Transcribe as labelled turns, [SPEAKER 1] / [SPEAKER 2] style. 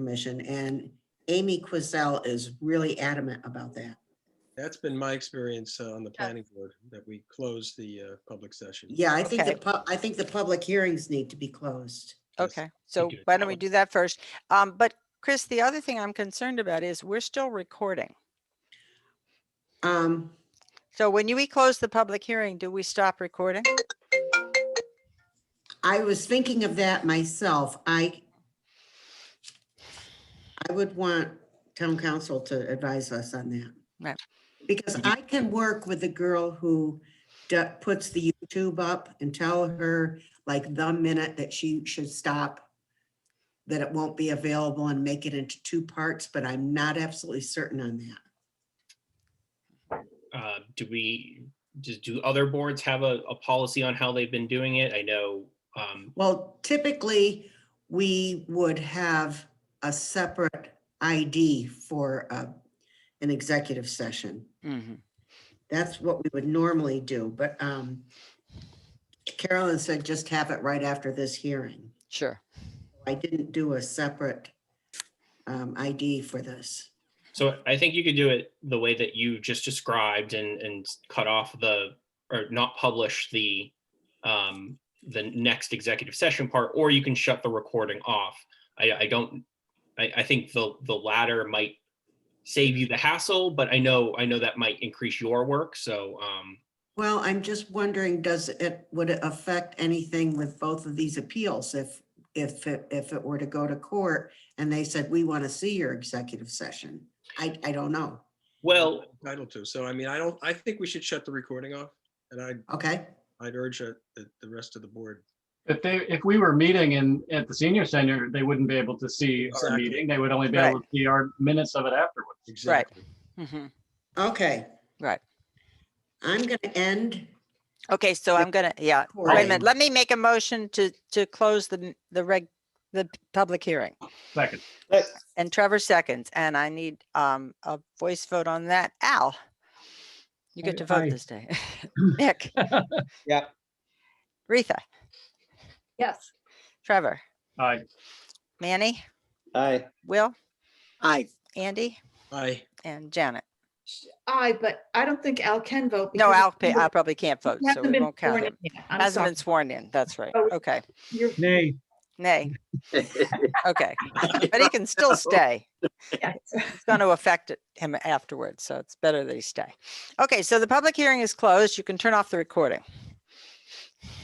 [SPEAKER 1] commission and Amy Quizell is really adamant about that.
[SPEAKER 2] That's been my experience uh, on the planning board, that we close the uh, public session.
[SPEAKER 1] Yeah, I think the,
[SPEAKER 3] Okay.
[SPEAKER 1] pub- I think the public hearings need to be closed.
[SPEAKER 2] Yes,
[SPEAKER 3] Okay, so
[SPEAKER 2] do it
[SPEAKER 3] why
[SPEAKER 2] that
[SPEAKER 3] don't we
[SPEAKER 2] way.
[SPEAKER 3] do that first? Um, but Chris, the other thing I'm concerned about is we're still recording.
[SPEAKER 1] Um,
[SPEAKER 3] So when you, we close the public hearing, do we stop recording?
[SPEAKER 1] I was thinking of that myself. I I would want town council to advise us on that.
[SPEAKER 3] Right.
[SPEAKER 1] Because I can work with the girl who d- puts the YouTube up and tell her like the minute that she should stop, that it won't be available and make it into two parts, but I'm not absolutely certain on that.
[SPEAKER 4] uh, do we, just do other boards have a, a policy on how they've been doing it? I know, um,
[SPEAKER 1] Well, typically, we would have a separate ID for uh, an executive session.
[SPEAKER 3] Mhm.
[SPEAKER 1] That's what we would normally do, but um, Carolyn said just have it right after this hearing.
[SPEAKER 3] Sure.
[SPEAKER 1] I didn't do a separate um, ID for this.
[SPEAKER 4] so I think you could do it the way that you just described and, and cut off the, or not publish the, um, the next executive session part, or you can shut the recording off. I, I don't, I, I think the, the latter might save you the hassle, but I know, I know that might increase your work, so, um,
[SPEAKER 1] Well, I'm just wondering, does it, would it affect anything with both of these appeals if, if, it- if it were to go to court and they said, we want to see your executive session? I, I don't know.
[SPEAKER 4] well,
[SPEAKER 2] Entitled to. So I mean, I don't, I think we should shut the recording off. And I'd,
[SPEAKER 1] Okay,
[SPEAKER 2] I'd urge uh, the, the rest of the board.
[SPEAKER 5] If they, if we were meeting in, at the senior center, they wouldn't be able to see our
[SPEAKER 2] Exactly.
[SPEAKER 5] meeting. They would only be able to see our minutes of it afterwards.
[SPEAKER 2] Exactly.
[SPEAKER 3] Mhm.
[SPEAKER 1] okay.
[SPEAKER 3] Right.
[SPEAKER 1] I'm going to end.
[SPEAKER 3] Okay, so I'm gonna, yeah, wait a
[SPEAKER 1] Right.
[SPEAKER 3] minute, let me make a motion to, to close the, n- the reg, the p- public hearing.
[SPEAKER 5] Second,
[SPEAKER 3] And Trevor seconds, and I need, um, a voice vote on that. Al? You get
[SPEAKER 6] Aye,
[SPEAKER 3] to
[SPEAKER 6] aye.
[SPEAKER 3] vote this day. Nick?
[SPEAKER 6] Yep.
[SPEAKER 3] Retha?
[SPEAKER 7] Yes.
[SPEAKER 3] Trevor?
[SPEAKER 5] aye.
[SPEAKER 3] Manny?
[SPEAKER 6] Aye.
[SPEAKER 3] Will?
[SPEAKER 6] Aye.
[SPEAKER 3] Andy?
[SPEAKER 2] Aye.
[SPEAKER 3] And Janet?
[SPEAKER 7] I, but I don't think Al can vote.
[SPEAKER 3] No,
[SPEAKER 7] because
[SPEAKER 3] Al,
[SPEAKER 7] he
[SPEAKER 3] pa- Al probably can't vote, so
[SPEAKER 7] hasn't
[SPEAKER 3] we
[SPEAKER 7] been
[SPEAKER 3] won't count
[SPEAKER 7] sworn
[SPEAKER 3] him.
[SPEAKER 7] in yet. I'm
[SPEAKER 3] Hasn't
[SPEAKER 7] sorry.
[SPEAKER 3] been sworn in, that's right.
[SPEAKER 7] Oh,
[SPEAKER 3] Okay,
[SPEAKER 7] You're-
[SPEAKER 6] Nay.
[SPEAKER 3] nay, okay. But he can still stay.
[SPEAKER 7] yes.
[SPEAKER 3] It's going to affect it- him afterwards, so it's better that he stay. Okay, so the public hearing is closed. You can turn off the recording.